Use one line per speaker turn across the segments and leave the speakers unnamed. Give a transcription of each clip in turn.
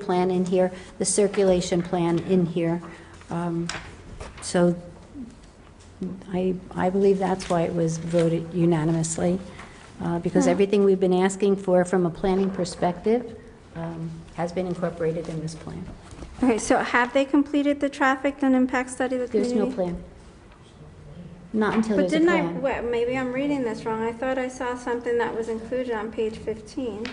plan in here, the circulation plan in here. Um, So I, I believe that's why it was voted unanimously, uh, because
Hmm.
everything we've been asking for from a planning perspective um, has been incorporated in this plan.
Okay, so have they completed the traffic and impact study with
There's no
community?
plan. Not until
But
there's a
didn't I,
plan.
wait, maybe I'm reading this wrong. I thought I saw something that was included on page 15.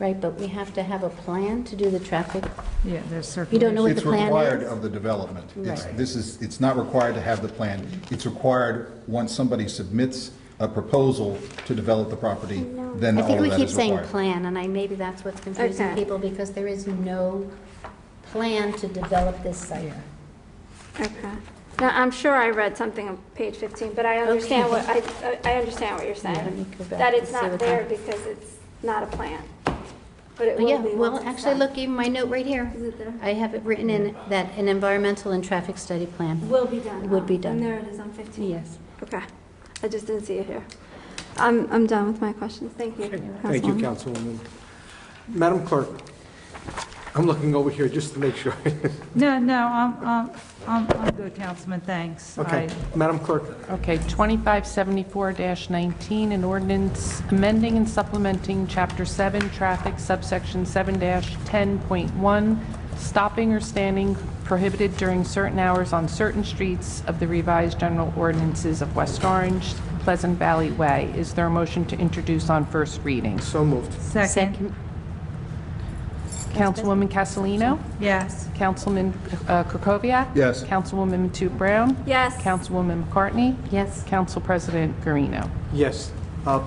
Right, but we have to have a plan to do the traffic.
Yeah, there's
You don't know
circulation.
what the
It's
plan
required
is?
of the development. It's,
Right.
this is, it's not required to have the plan. It's required, once somebody submits a proposal to develop the property, then
I
all
think we
of that
keep
is
saying
required.
plan, and I, maybe that's what's confusing
Okay.
people, because there is no plan to develop this site.
Yeah.
Okay. Now, I'm sure I read something on page 15, but I understand what, I, I- I understand what you're
Yeah, let me
saying.
go back
That
and
it's
see
not
what
there
that-
because it's not a plan. But it will
Yeah,
be
well,
once it's
actually,
done.
look, even my note right here.
Is it there?
I have it written in that an environmental and traffic study plan.
Will be done.
Would
huh?
be done.
And there it is on 15.
Yes.
Okay. I just didn't see it here. I'm, I'm done with my questions. Thank you.
Thank you,
Councilwoman.
Councilwoman. Madam Clerk, I'm looking over here just to make sure.
No, no, I'm, I'm, I'm I'm good, Councilman, thanks.
Okay,
I-
Madam Clerk,
Okay, 2574-19, an ordinance amending and supplementing Chapter 7, Traffic, subsection 7-10.1, stopping or standing prohibited during certain hours on certain streets of the revised general ordinances of West Orange, Pleasant Valley Way. Is there a motion to introduce on first reading?
so moved.
Second,
Councilwoman Castellino?
yes.
Councilman uh, Krokoviac?
Yes.
Councilwoman Matute Brown?
Yes.
Councilwoman McCartney?
Yes.
Council President Garino.
Yes. Uh,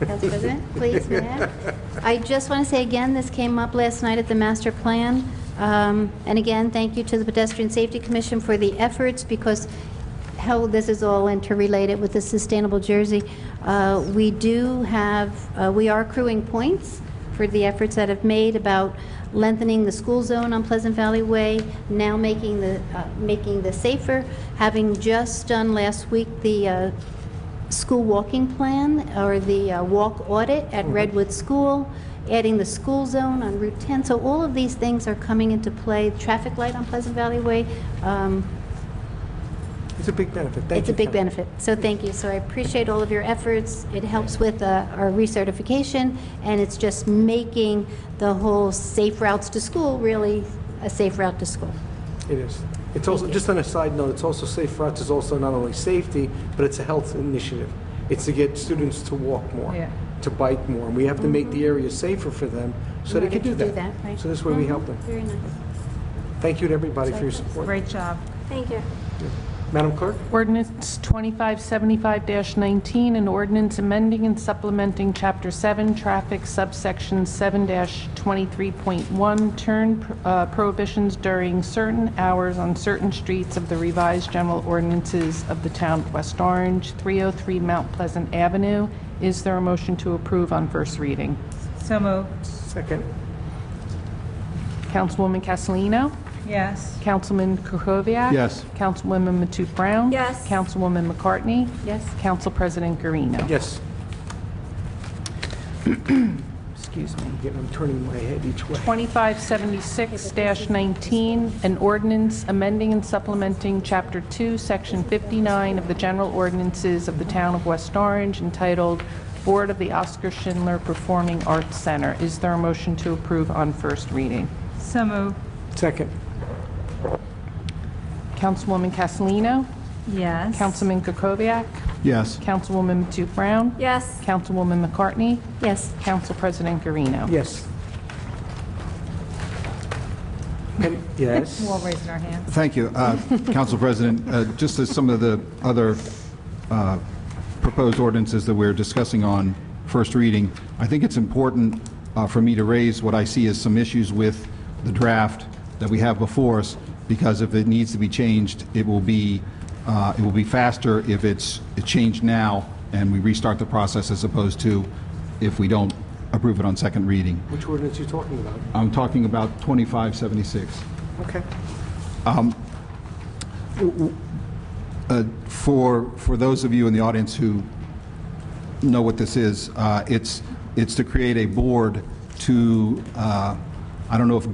Council President, please, may I? I just want to say again, this came up last night at the master plan. Um, And again, thank you to the Pedestrian Safety Commission for the efforts, because how this is all interrelated with the Sustainable Jersey. Uh, We do have, uh, we are accruing points for the efforts that have made about lengthening the school zone on Pleasant Valley Way, now making the, uh, making the safer, having just done last week the uh, school walking plan or the uh, walk audit
Mm-hmm.
at Redwood School, adding the school zone on Route 10. So all of these things are coming into play. Traffic light on Pleasant Valley Way, um,
It's a big benefit. Thank
it's a
you,
big
Council-
benefit. So thank you. So I appreciate all of your efforts. It helps with uh, our recertification, and it's just making the whole safe routes to school really a safe route to school.
It is. It's also, just on a side note, it's also safe routes, it's also not only safety, but it's a health initiative. It's to get students to walk more,
Yeah.
to bike more, and we have to make the area safer for them so
In
they
order
can do
to
that.
do that, Mm-hmm. right. Mm-hmm.
So this way we help them.
Very nice.
Thank you to everybody for your support.
Great job.
Thank you.
Madam Clerk?
Ordinance 2575-19, an ordinance amending and supplementing Chapter 7, Traffic, subsection 7-23.1, turn uh, prohibitions during certain hours on certain streets of the revised general ordinances of the town of West Orange, 303 Mount Pleasant Avenue. Is there a motion to approve on first reading?
So moved,
Second.
Councilwoman Castellino?
yes.
Councilman Kukoviac?
Yes.
Councilwoman Matute Brown?
Yes.
Councilwoman McCartney?
Yes.
Council President Garino?
Yes.
Excuse me.
Again, I'm turning my head each way.
2576-19, an ordinance amending and supplementing Chapter 2, Section 59 of the General Ordinances of the Town of West Orange entitled Board of the Oscar Schindler Performing Arts Center. Is there a motion to approve on first reading?
So moved,
Second.
Councilwoman Castellino?
yes.
Councilman Kukoviac?
Yes.
Councilwoman Matute Brown?
Yes.
Councilwoman McCartney?
Yes.
Council President Garino.
Yes. And- Yes.
We're all raising our hands.
Thank you, uh, Council President. Uh, Just as some of the other uh, proposed ordinances that we're discussing on first reading, I think it's important uh, for me to raise what I see as some issues with the draft that we have before us, because if it needs to be changed, it will be, uh, it will be faster if it's it's changed now and we restart the process as opposed to if we don't approve it on second reading.
Which ordinance are you talking about?
I'm talking about Um, 2576.
Okay.
uh, For, for those of you in the audience who know what this is, uh, it's, it's to create a board to, uh, I don't know if